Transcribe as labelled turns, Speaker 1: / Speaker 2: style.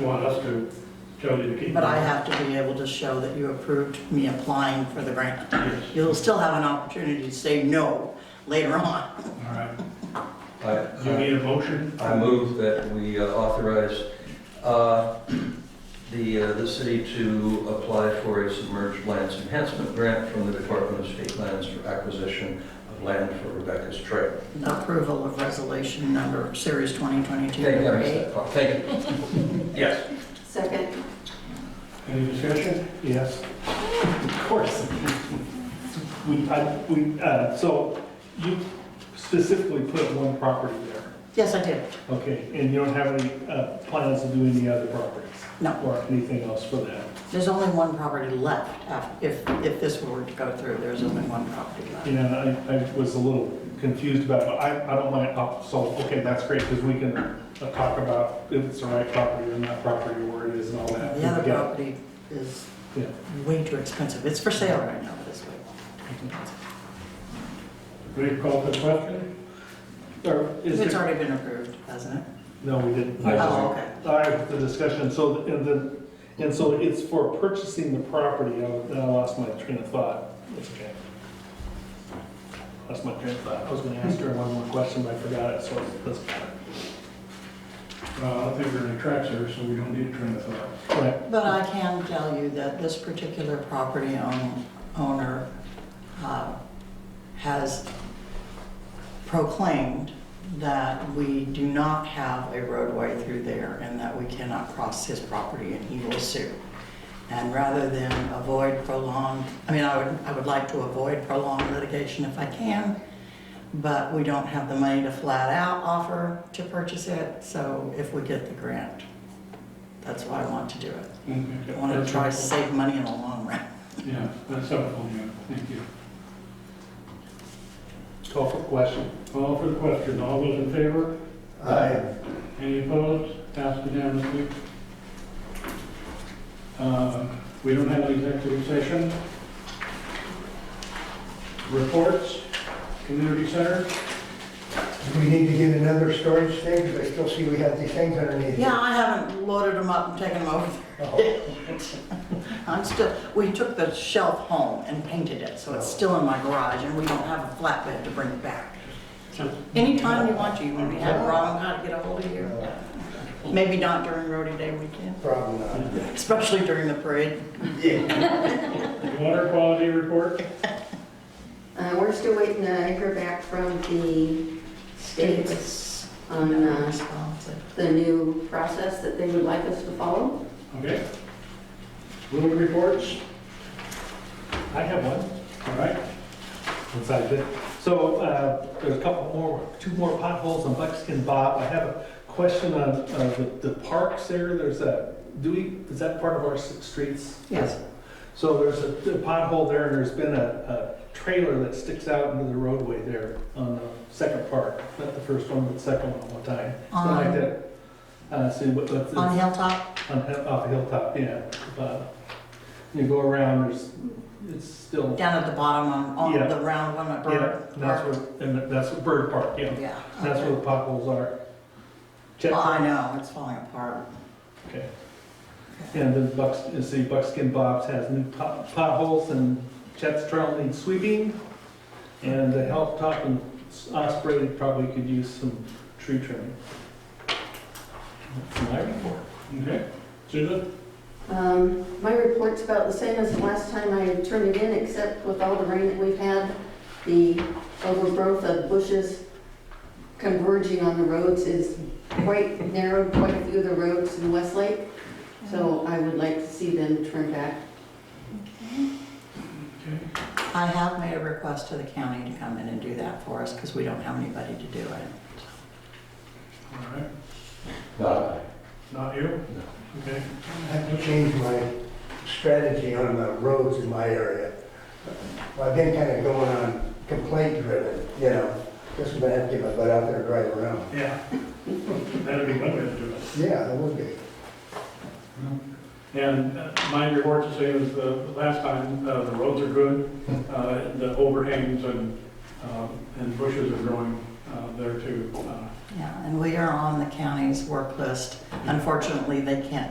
Speaker 1: You want us to tell you to keep.
Speaker 2: But I have to be able to show that you approved me applying for the grant.
Speaker 1: Yes,
Speaker 2: You'll still have an opportunity to say no later on.
Speaker 1: all right.
Speaker 3: I-
Speaker 1: You
Speaker 3: I
Speaker 1: need a motion?
Speaker 3: I move that we uh, authorize uh, the, uh, the city to apply for a submerged lands enhancement grant from the Department of State Lands for acquisition of land for Rebecca's Trail.
Speaker 2: Approval of resolution number, series 2022,
Speaker 3: Thank you, I
Speaker 2: number
Speaker 3: missed
Speaker 2: eight.
Speaker 3: that part. Thank you. Yes.
Speaker 4: Second.
Speaker 1: Any discussion? Yes. Of course. We, I, we, uh, so you specifically put one property there,
Speaker 2: Yes, I did.
Speaker 1: okay? And you don't have any, uh, plans to do any other properties?
Speaker 2: No.
Speaker 1: Or anything else for that?
Speaker 2: There's only one property left af- if, if this were to go through, there's only one property left.
Speaker 1: You know, I, I was a little confused about, it, but I, I don't mind, oh, so, okay, that's great, because we can uh, talk about if it's the right property or not property, where it is and all that.
Speaker 2: The other
Speaker 1: Yeah.
Speaker 2: property is
Speaker 1: Yeah.
Speaker 2: way too expensive. It's for sale right now, but it's way too expensive.
Speaker 1: Will you call for the question? Or is
Speaker 2: It's
Speaker 1: there?
Speaker 2: already been approved, hasn't it?
Speaker 1: No, we didn't.
Speaker 3: I just-
Speaker 2: Oh, okay.
Speaker 1: All right, the discussion, so, and the, and so it's for purchasing the property, Oh, I I lost my train of thought. That's okay. Lost my train of thought, I was gonna ask her one more question, but I forgot it, so it doesn't matter.
Speaker 5: Uh, I don't think there are any tracks there, so we don't need a train of thought.
Speaker 1: All right,
Speaker 2: But I can tell you that this particular property own- owner uh, has proclaimed that we do not have a roadway through there and that we cannot cross his property and he will sue. And rather than avoid prolonged, I mean, I would, I would like to avoid prolonged litigation if I can, but we don't have the money to flat out offer to purchase it, so if we get the grant, that's why I want to do it. I want to try to save money in the long run.
Speaker 5: Yeah, that's helpful, yeah, thank you.
Speaker 1: call for the question.
Speaker 5: Call for the question, all those in favor? Any opposed? Passed unanimously. Uh, We don't have an executive session. Reports, community center,
Speaker 6: Do we need to get another storage thing? Because I still see we have these things underneath.
Speaker 2: Yeah, I haven't loaded them up and taken them over.
Speaker 6: Oh,
Speaker 2: I'm still, we took the shelf home and painted it, so it's still in my garage, and we don't have a flatbed to bring it back. So Anytime you want to, you want me to have Robin how to get a hold of you. Maybe not during roadie day weekend,
Speaker 6: Probably not.
Speaker 2: especially during the parade.
Speaker 5: water quality report.
Speaker 4: Uh, we're still waiting to hear back from the state on, uh, the new process that they would like us to follow.
Speaker 5: Okay. Little reports,
Speaker 1: I have one.
Speaker 5: all right.
Speaker 1: since I did. So uh, there's a couple more, two more potholes on Buckskin Bob. I have a question on uh, the the parks there. There's a, do we, is that part of our s- streets?
Speaker 2: Yes.
Speaker 1: So there's a a pothole there and there's been a a trailer that sticks out into the roadway there on the second part, not the first one, but the second one one time. Something
Speaker 2: On-
Speaker 1: like that. Uh, See, but but it's
Speaker 2: On Hilltop,
Speaker 1: on hill- off Hilltop, yeah. Uh, You go around, there's, it's still, yeah,
Speaker 2: down at the bottom on, on
Speaker 1: Yeah.
Speaker 2: the round one at Bird.
Speaker 1: that's where, and that's Bird Park, yeah.
Speaker 2: Yeah.
Speaker 1: That's where the potholes are. Check,
Speaker 2: Well, I know, it's falling apart.
Speaker 1: okay. And then Bucks, you see Buckskin Bob's has new pot- potholes and Chet's Trail needs sweeping. And the Hilltop and Osprey probably could use some tree trimming. That's my report.
Speaker 5: Okay. Susan?
Speaker 4: Um, my report's about the same as the last time I turned it in, except with all the rain that we've had, the overgrowth of bushes converging on the roads is quite narrowed quite a few of the roads in Westlake. So I would like to see them turn back
Speaker 5: Okay.
Speaker 2: I have made a request to the county to come in and do that for us, because we don't have anybody to do it.
Speaker 5: All right,
Speaker 3: Not
Speaker 5: not you?
Speaker 3: No.
Speaker 5: Okay.
Speaker 6: I have to change my strategy on the roads in my area. Well, I've been kind of going on complaint driven, you know. Guess I'm gonna have to get my butt out there and drive around.
Speaker 5: Yeah. That'd be one way to do it.
Speaker 6: Yeah, that would be.
Speaker 5: And uh, my report to say is the last time, uh, the roads are good, uh, the overhangs and, um, and bushes are growing uh, there too. Uh,
Speaker 2: Yeah, and we are on the county's work list. Unfortunately, they can't